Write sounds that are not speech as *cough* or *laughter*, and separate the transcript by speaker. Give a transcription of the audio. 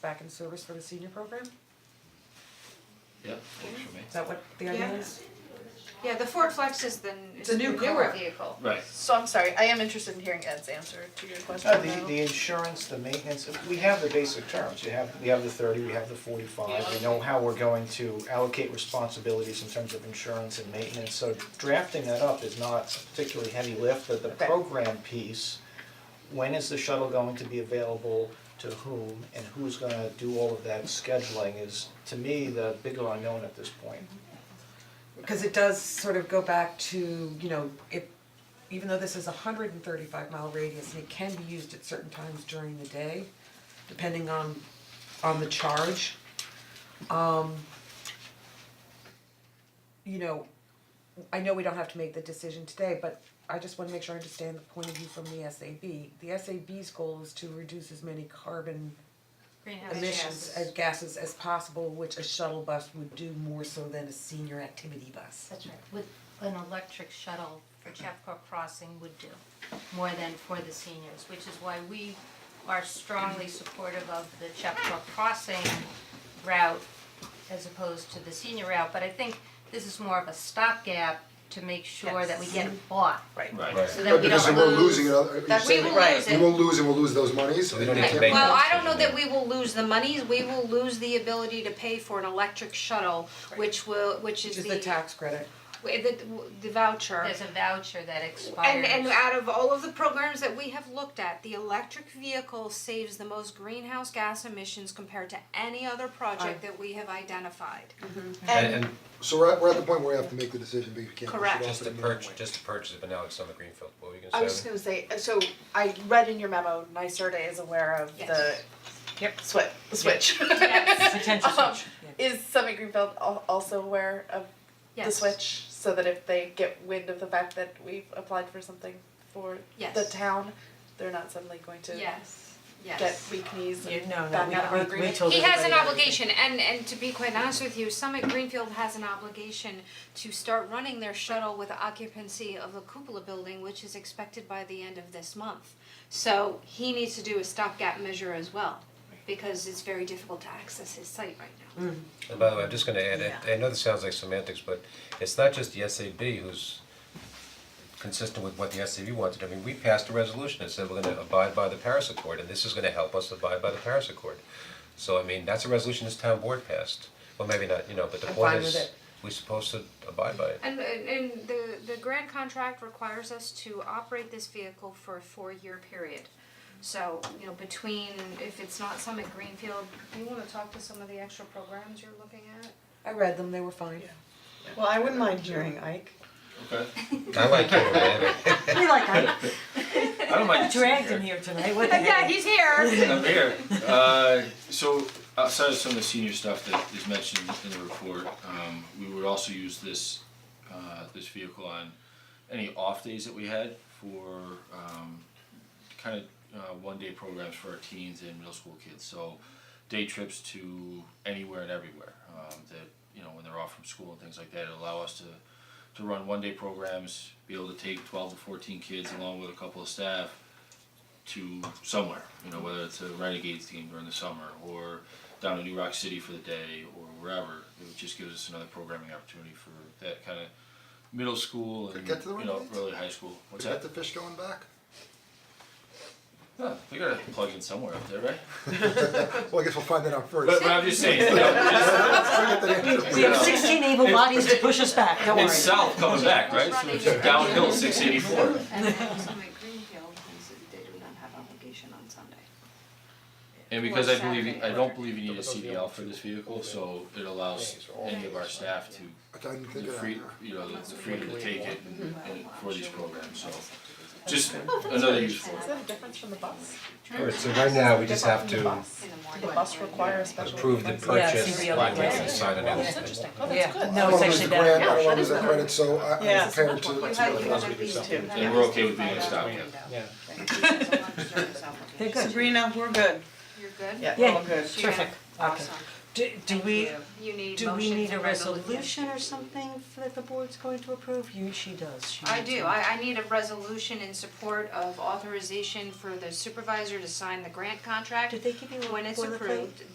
Speaker 1: back in service for the senior program? Is
Speaker 2: Yeah, works for me.
Speaker 1: that what the idea
Speaker 3: Yeah.
Speaker 1: is?
Speaker 3: Yeah, the Ford Flex is the, is
Speaker 1: a
Speaker 3: the
Speaker 1: new
Speaker 3: newer
Speaker 1: car.
Speaker 3: vehicle.
Speaker 2: Right.
Speaker 4: So I'm sorry, I am interested in hearing Ed's answer to your question
Speaker 5: Uh, the
Speaker 4: though.
Speaker 5: the insurance, the maintenance, we have the basic terms, you have, we have the thirty, we have the forty-five, we know how we're going to allocate responsibilities in terms of insurance and maintenance, so drafting that up is not a particularly heavy lift, but the
Speaker 4: Okay.
Speaker 5: program piece, when is the shuttle going to be available to whom, and who's gonna do all of that scheduling is, to me, the bigger unknown at this point.
Speaker 1: Because it does sort of go back to, you know, if, even though this is a hundred and thirty-five mile radius and it can be used at certain times during the day, depending on, on the charge. Um, you know, I know we don't have to make the decision today, but I just wanna make sure I understand the point of view from the SAB. The SAB's goal is to reduce as many carbon
Speaker 3: Greenhouse
Speaker 1: emissions as
Speaker 3: gases.
Speaker 1: gases as possible, which a shuttle bus would do more so than a senior activity bus.
Speaker 6: That's right, with an electric shuttle for Chapco Crossing would do, more than for the seniors, which is why we are strongly supportive of the Chapco Crossing route as opposed to the senior route, but I think this is more of a stopgap to make sure that we get it bought,
Speaker 2: Right.
Speaker 6: so that we
Speaker 7: Because
Speaker 6: don't
Speaker 7: we're
Speaker 6: lose.
Speaker 7: losing, it, are you
Speaker 6: That we
Speaker 7: saying
Speaker 6: will
Speaker 7: that
Speaker 6: lose
Speaker 7: we
Speaker 6: it.
Speaker 7: won't lose and we'll lose those monies?
Speaker 2: we don't
Speaker 7: You
Speaker 2: need to
Speaker 7: can't-
Speaker 2: bank
Speaker 6: Well, I don't know that we will lose the monies, we will lose the ability to pay for an electric shuttle, which will, which is
Speaker 1: Which is
Speaker 6: the
Speaker 1: the tax credit.
Speaker 6: with the the voucher.
Speaker 3: There's a voucher that expires.
Speaker 6: And and out of all of the programs that we have looked at, the electric vehicle saves the most greenhouse gas emissions compared to any other project that we have identified.
Speaker 2: And and
Speaker 7: So we're at, we're at the point where we have to make the decision, but you can't push it
Speaker 6: Correct.
Speaker 7: off
Speaker 8: Just to
Speaker 7: another
Speaker 8: purchase,
Speaker 7: way.
Speaker 8: just to purchase it, but now it's on the greenfield, what were you
Speaker 4: I
Speaker 8: gonna
Speaker 4: was just
Speaker 8: say?
Speaker 4: gonna say, uh, so I read in your memo, NYSERDA is aware of the
Speaker 6: Yes.
Speaker 4: Yep. swi- the switch.
Speaker 1: Potential
Speaker 4: Um,
Speaker 1: switch,
Speaker 4: *laughs* Is Summit Greenfield al- also aware of the
Speaker 6: Yes.
Speaker 4: switch, so that if they get wind of the fact that we've applied for something for
Speaker 6: Yes.
Speaker 4: the town, they're not suddenly going to
Speaker 6: Yes,
Speaker 4: get
Speaker 6: yes.
Speaker 4: weak knees
Speaker 9: You
Speaker 4: and
Speaker 9: know, no,
Speaker 4: back
Speaker 9: we-
Speaker 4: out of
Speaker 9: we-
Speaker 4: our
Speaker 9: we
Speaker 4: agreement?
Speaker 9: told
Speaker 6: He has an
Speaker 9: everybody
Speaker 6: obligation,
Speaker 9: everything.
Speaker 6: and and to be quite honest with you, Summit Greenfield has an obligation to start running their shuttle with occupancy of the cupola building, which is expected by the end of this month. So he needs to do a stopgap measure as well, because it's very difficult to access his site right now.
Speaker 8: And by the way, I'm just gonna add, I I know this sounds like semantics, but it's not just the SAB who's consistent with what the SAB wanted, I mean, we passed a resolution that said we're gonna abide by the Paris Accord, and this is gonna help us abide by the Paris Accord. So I mean, that's a resolution this town board passed, well, maybe not, you know, but the
Speaker 1: I'm
Speaker 8: point
Speaker 1: fine with
Speaker 8: is,
Speaker 1: it.
Speaker 8: we're supposed to abide by it.
Speaker 6: And and and the the grant contract requires us to operate this vehicle for a four-year period. So, you know, between, if it's not Summit Greenfield, do you wanna talk to some of the extra programs you're looking at?
Speaker 1: I read them, they were fine.
Speaker 9: Well, I wouldn't mind hearing Ike.
Speaker 2: okay.
Speaker 8: I like
Speaker 1: *laughs*
Speaker 8: it, man.
Speaker 9: We like Ike.
Speaker 2: *laughs* I don't mind.
Speaker 9: Dragged him here
Speaker 6: *laughs*
Speaker 9: tonight, what the heck?
Speaker 6: he's *laughs* here.
Speaker 2: *laughs* I'm here. Uh, so outside of some of the senior stuff that is mentioned in the report, um, we would also use this, uh, this vehicle on any off days that we had for, um, kind of, uh, one-day programs for our teens and middle school kids. So day trips to anywhere and everywhere, um, that, you know, when they're off from school and things like that, it'll allow us to, to run one-day programs, be able to take twelve to fourteen kids along with a couple of staff, to somewhere, you know, whether it's a Renegades team during the summer or down to New Rock City for the day or wherever. It just gives us another programming opportunity for that kind of middle school and
Speaker 7: Get to the
Speaker 2: you know
Speaker 7: Renegades?
Speaker 2: early high school. What's
Speaker 7: Is that
Speaker 2: that?
Speaker 7: the fish going back?
Speaker 2: Huh, they gotta plug in somewhere up there, right?
Speaker 7: Well, I guess we'll find that out first.
Speaker 2: But, but I'm just saying, you know,
Speaker 9: We have sixteen able bodies to push us back, don't worry.
Speaker 2: it's south coming back, right? So it's downhill, six eighty four.
Speaker 6: And then Summit Greenfield, they do not have obligation on Sunday.
Speaker 2: And because I believe,
Speaker 6: Saturday.
Speaker 2: I don't believe you need a CDL for this vehicle, so it allows any of our staff to
Speaker 7: I didn't think
Speaker 2: the
Speaker 7: of that.
Speaker 2: free, you know, the the freedom to take it and and for these programs, so just
Speaker 9: Oh,
Speaker 2: another use for
Speaker 4: Is
Speaker 2: it.
Speaker 4: that a difference from the bus?
Speaker 8: Alright, so right now, we just have
Speaker 4: Different from the bus.
Speaker 8: to
Speaker 4: The bus requires special.
Speaker 8: approve the
Speaker 4: license.
Speaker 8: purchase,
Speaker 9: CBO.
Speaker 8: like we can sign it out.
Speaker 4: That's interesting, oh, that's
Speaker 9: Yeah,
Speaker 4: good.
Speaker 9: no, it's actually
Speaker 7: I
Speaker 9: better.
Speaker 7: don't want to lose the grant, I don't want to lose the credit, so I,
Speaker 9: Yeah.
Speaker 7: I'm prepared to.
Speaker 2: And we're okay with being a stopgap.
Speaker 9: They're good.
Speaker 3: Sabrina, we're good.
Speaker 6: You're good?
Speaker 9: Yeah,
Speaker 6: You're
Speaker 9: all good. Terrific. Okay.
Speaker 6: Awesome.
Speaker 9: Do, do we,
Speaker 6: You need
Speaker 9: do we
Speaker 6: motion
Speaker 9: need
Speaker 6: to
Speaker 9: a
Speaker 6: resolu-
Speaker 9: resolution or something that the board's going to approve? You, she does, she
Speaker 6: I
Speaker 9: needs
Speaker 6: do,
Speaker 9: one.
Speaker 6: I I need a resolution in support of authorization for the supervisor to sign the grant contract.
Speaker 9: Did they give you a
Speaker 6: When it's
Speaker 9: boilerplate?
Speaker 6: approved,